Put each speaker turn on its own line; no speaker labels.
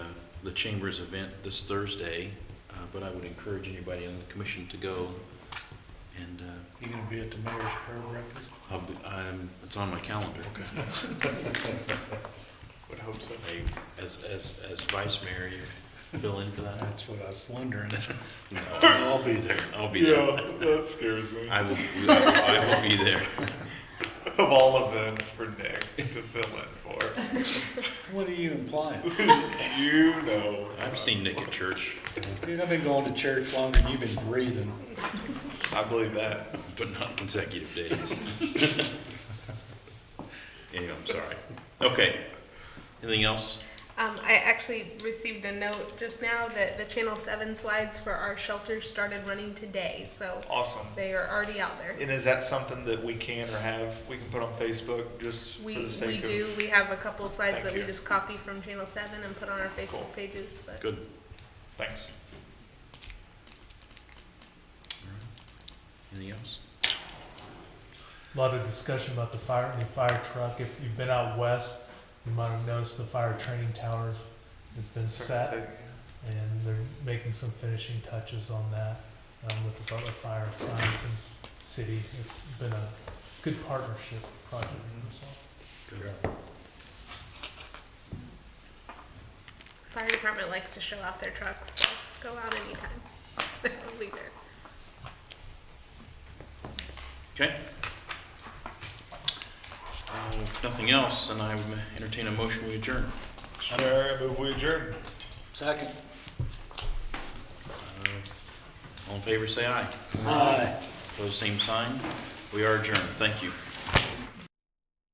the Chamber's event this Thursday, uh, but I would encourage anybody on the commission to go. And uh,
You gonna be at the mayor's prayer breakfast?
I'll be- I'm- it's on my calendar.
Would hope so.
I- As, as, as vice mayor, you fill in for that?
That's what I was wondering.
No,
I'll be there.
I'll be there.
that scares me.
I will, I will be there.
Of all events for Nick to fill in for,
What are you implying?
you know.
I've seen Nick at church,
Dude, I've been going to church longer than you've been breathing.
I believe that.
but not consecutive days. Anyway, I'm sorry. Okay. Anything else?
Um, I actually received a note just now that the Channel 7 slides for our shelters started running today, so
Awesome.
they are already out there.
And is that something that we can or have, we can put on Facebook just for
We,
the
we
sake of?
do, we have a couple of slides
Thank
that we
you.
just copy from Channel 7 and put on our
Cool.
Facebook pages, but
Good.
Thanks.
Anything else?
A lot of discussion about the fire, the fire truck. If you've been out west, you might have noticed the fire training towers has been set,
Sorry to take-
and they're making some finishing touches on that um, with the Butler Fire Science and City. It's been a good partnership project. So.
fire department likes to show off their trucks, so go out anytime. They'll be there.
Okay. Uh, if Nothing else, and I would entertain a motion we adjourn.
Sure, move we adjourn.
Second.
Uh, All in favor, say aye.
Aye.
Those same sign. We are adjourned. Thank you.